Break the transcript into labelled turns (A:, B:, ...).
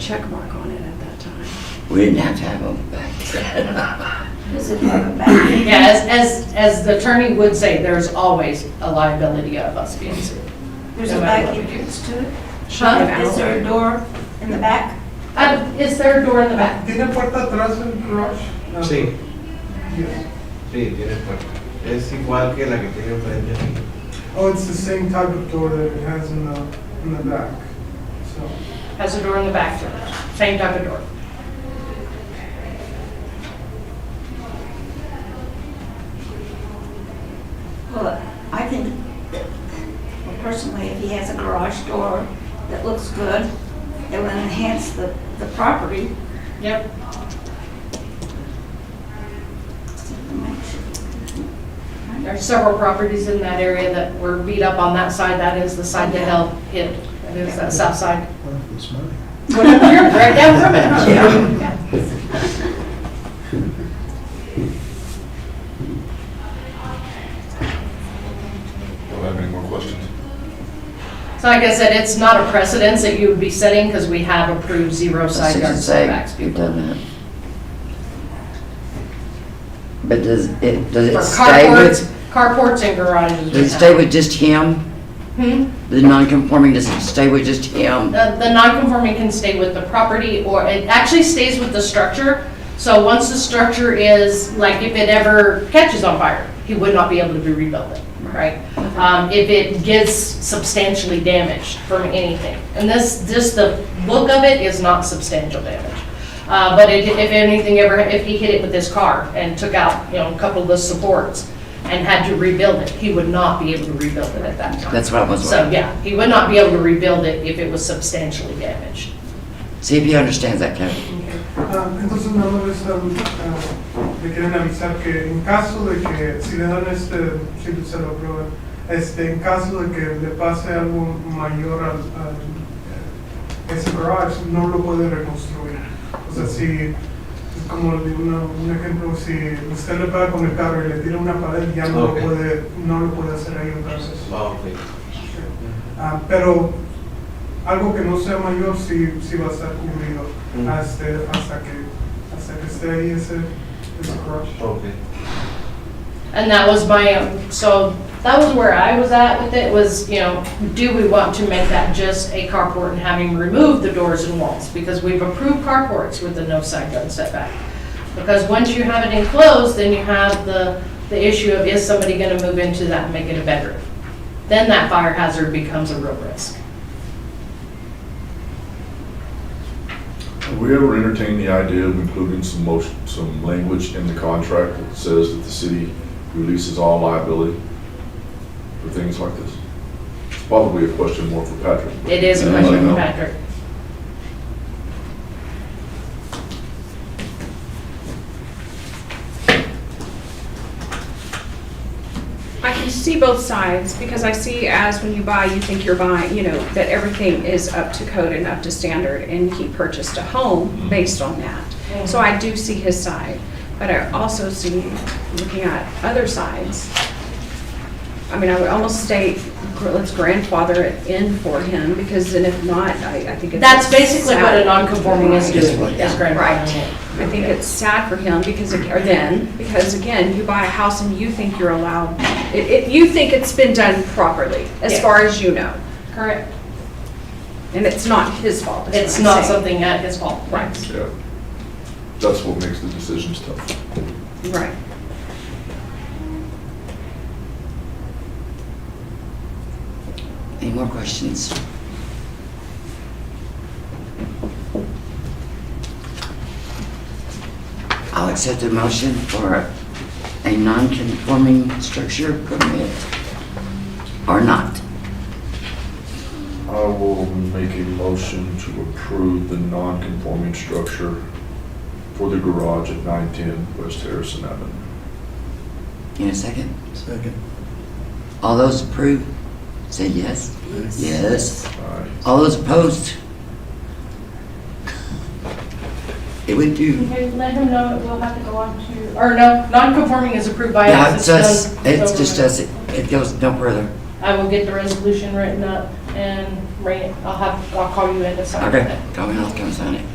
A: check mark on it at that time.
B: We didn't have to have them back then.
C: Is it from back?
D: Yeah, as, as, as the attorney would say, there's always a liability of us being sued.
C: There's a back entrance to it?
D: Huh?
C: Is there a door in the back?
D: Uh, is there a door in the back?
E: ¿Tiene puerta atrás el garage? No.
F: Sí. Sí, tiene puerta. Es igual que la que tiene enfrente.
E: Oh, it's the same type of door that it has in the, in the back, so.
D: Has a door in the back to it, same type of door.
C: Well, I think that well, personally, if he has a garage door that looks good, it will enhance the, the property.
D: Yep. There's several properties in that area that were beat up on that side, that is the side that held hit, that is that south side. Whatever, you're right down from it.
B: Yeah.
G: Don't have any more questions.
D: So like I said, it's not a precedence that you would be setting because we have approved zero side
B: Six
D: yard
B: and say,
D: setbacks
B: you've
D: before.
B: done that. But does it, does
D: For
B: it stay
D: carports,
B: with,
D: carports and garages. we
B: does it
D: have.
B: stay with just him?
D: Hmm?
B: The non-conforming, does it stay with just him?
D: um, The, the non-conforming can stay with the property, or it actually stays with the structure. So once the structure is, like, if it ever catches on fire, he would not be able to be rebuilt, it, right? Um, if it gets substantially damaged from anything. And this, just the look of it is not substantial damage. Uh, but it- if anything ever, if he hit it with his car and took out, you know, a couple of the supports and had to rebuild it, he would not be able to rebuild it at that time.
B: That's what I was
D: So,
B: wondering.
D: yeah, he would not be able to rebuild it if it was substantially damaged.
B: See if he understands that, Kevin.
E: Ah, entonces nada más les, um, ah, le quieren avisar que en caso de que, si le dan este, si se lo aprueban, este, en caso de que le pase algo mayor al, al, eh, ese garage, no lo puede reconstruir. O sea, si, como le digo, una- un ejemplo, si usted le pega con el carro y le tira una pared, ya no
F: Ok.
E: lo puede, no lo puede hacer ahí entonces.
F: Ah, ok.
E: Ah, pero algo que no sea mayor sí, sí va a estar cumplido
F: Mm.
E: hasta, hasta, que, hasta que esté ahí ese, ese crush.
F: Ok.
D: And that was my, um, so that was where I was at with it, was, you know, do we want to make that just a carport and having removed the doors and walls? Because we've approved carports with the no side yard setback. Because once you have it enclosed, then you have the, the issue of is somebody gonna move into that and make it a bedroom? Then that fire hazard becomes a real risk.
G: Have we ever entertained the idea of including some motion, some language in the contract that says that the city releases all liability for things like this? It's probably a question more for Patrick. but-
D: It is a
G: Anybody
D: question for
G: know?
D: Patrick.
H: I can see both sides because I see as when you buy, you think you're buying, you know, that everything is up to code and up to standard and he purchased a home based on that. So I do see his side, but I also see, looking at other sides, I mean, I would almost state, gr- let's grandfather it in for him because then if not, I, I think it's.
D: That's basically what a non-conforming is
B: Just
D: doing,
B: what-
D: is grandfathering in.
H: I think it's sad for him because, ag- or then, because again, you buy a house and you think you're allowed, it, it, you think it's been done properly, as
D: Yeah.
H: far as you know.
D: Correct.
H: And it's not his fault. is what
D: It's
H: I'm
D: not
H: saying.
D: something at his fault, right?
G: Yeah. That's what makes the decisions tough.
H: Right.
B: Any more questions? I'll accept the motion for a non-conforming structure permit or not.
G: I will make a motion to approve the non-conforming structure for the garage at 910 West Harrison Avenue.
B: In a second.
I: Second.
B: All those approve, say yes. Yes.
G: Aye.
B: All those opposed? It would do.
D: Okay, let him know it will have to go on to, or no, non-conforming is approved by
B: Yeah,
D: us.
B: it's us,
D: done.
B: it's
D: So
B: just us, it it goes no further.
D: I will get the resolution written up and bring it, I'll have, I'll call you in to sign it.
B: Okay, call me, I'll come sign it.